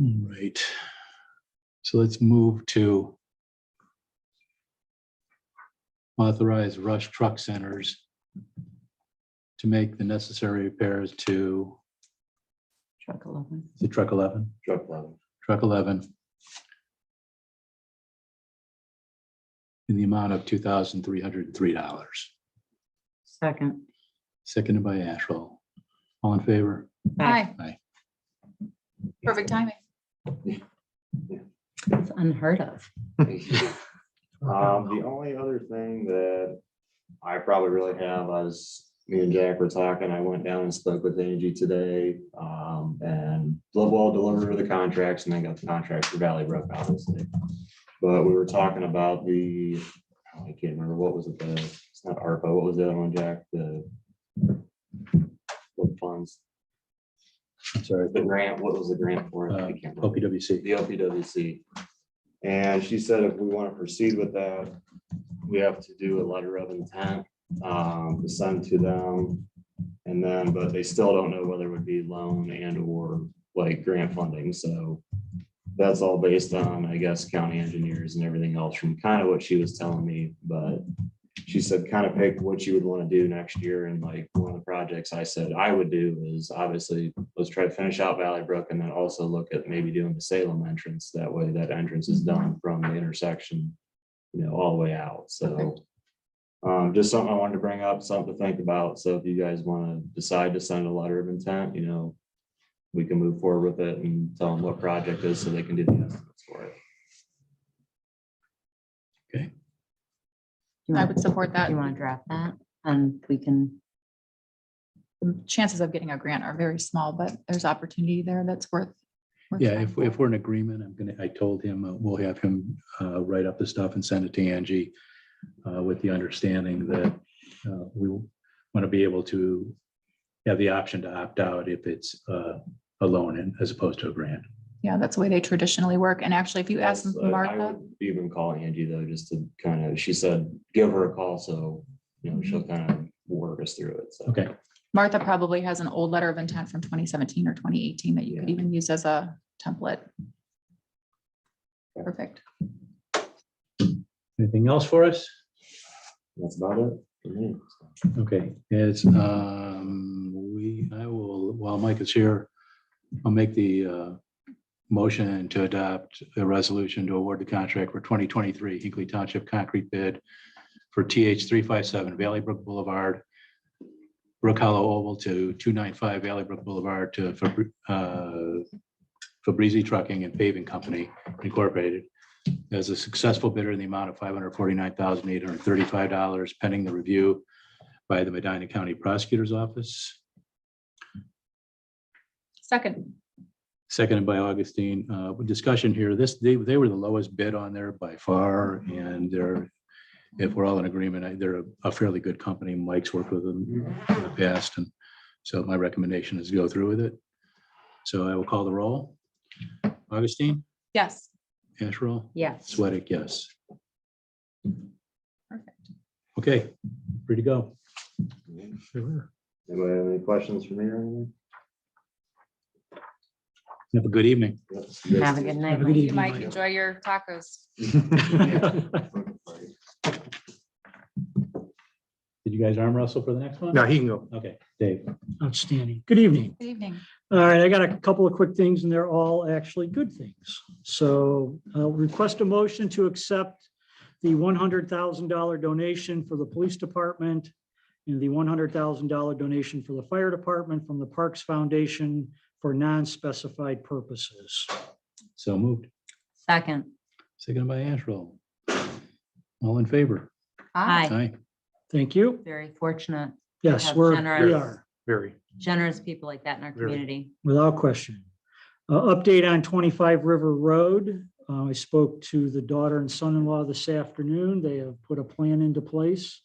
All right. So let's move to authorize Rush Truck Centers to make the necessary repairs to Truck eleven. the truck 11, Truck level. truck 11 in the amount of $2,303. Second. Seconded by Asherall. All in favor? Hi. Aye. Perfect timing. It's unheard of. Um, the only other thing that I probably really have is, me and Jack were talking, I went down and spoke with Angie today. Um, and Lovewell delivered her the contracts and then got the contracts for Valley Brook, obviously. But we were talking about the, I can't remember, what was it, the, it's not ARPA, what was the other one, Jack, the what funds, I'm sorry. the grant, what was the grant for? I Uh, can't remember. OPWC. the LPWC. And she said if we want to proceed with that, we have to do a letter of intent, um, to send to them. And then, but they still don't know whether it would be loan and or like grant funding, so that's all based on, I guess, county engineers and everything else from kind of what she was telling me, but she said kind of pick what you would want to do next year and like one of the projects I said I would do is obviously let's try to finish out Valley Brook and then also look at maybe doing the Salem entrance. That way that entrance is done from the intersection, you know, all the way out. So um, just something I wanted to bring up, something to think about. So if you guys want to decide to send a letter of intent, you know, we can move forward with it and tell them what project is so they can do the estimates for it. I would support that. You want to draft that and we can, The Chances of getting a grant are very small, but there's opportunity there that's worth. worth Yeah, trying if, for. if we're in agreement, I'm gonna, I told him, uh, we'll have him uh, write up the stuff and send it to Angie uh, with the understanding that uh, we want to be able to have the option to opt out if it's uh, a loan and- as opposed to a grant. Yeah, that's the way they traditionally work. And actually, if you ask That's- uh, I- I Martha, would Even call Angie though, just to kind of, she said, give her a call, so, you know, she'll Mm-hmm. kind of work us through it, so. Okay, Martha probably has an old letter of intent from twenty seventeen or twenty eighteen that you could Yeah. even use as a template. Perfect. anything else for us? That's about it. for me, so. Okay, it's, um, we, I will, while Mike is here, I'll make the uh, motion to adopt a resolution to award the contract for 2023 Hinkley Township concrete bid for TH 357 Valley Brook Boulevard, Brook Hollow Oval to 295 Valley Brook Boulevard to Fabri- uh, Fabrizi Trucking and Paving Company Incorporated as a successful bidder in the amount of $549,835 pending the review by the Medina County Prosecutor's Office, Second, seconded by Augustine. Uh, Discussion here, this, they, they were the lowest bid on there by far, and they're, if we're all in agreement, I- they're a fairly good company. Mike's worked with them in the past, and so my recommendation is go through with it. So I will call the roll. Augustine, yes. Asherall, yes. Sweattick, yes. Perfect. Okay, free to go. Anybody have any questions for me or anything? Have a good evening. Yes, you guys Have a do. good Have night. a good Mike. evening, Mike, Mike. enjoy your tacos. Did Did you guys arm wrestle for the next one? No, he can go. Okay, Dave. Outstanding. Good evening. Good evening. All right, I got a couple of quick things and they're all actually good things. So uh, request a motion to accept the one hundred thousand dollar donation for the police department and the one hundred thousand dollar donation for the fire department from the Parks Foundation for non-specified purposes. So moved. Second, Seconded by Asherall. All in favor? Aye. Aye. Thank you. very fortunate. Yes, Have we're, we generous- are. Very. Generous people like that in our Very. community. Without question. Uh, Update on 25 River Road. Uh, I spoke to the daughter and son-in-law this afternoon. They have put a plan into place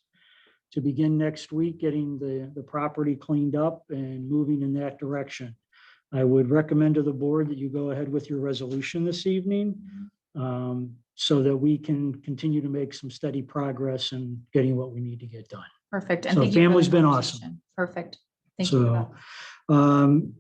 to begin next week, getting the, the property cleaned up and moving in that direction. I would recommend to the board that you go ahead with your resolution this evening um, so that we can continue to make some steady progress in getting what we need to get done. Perfect. And So thank you for the family's been conversation. Perfect. Thank you. for so, um,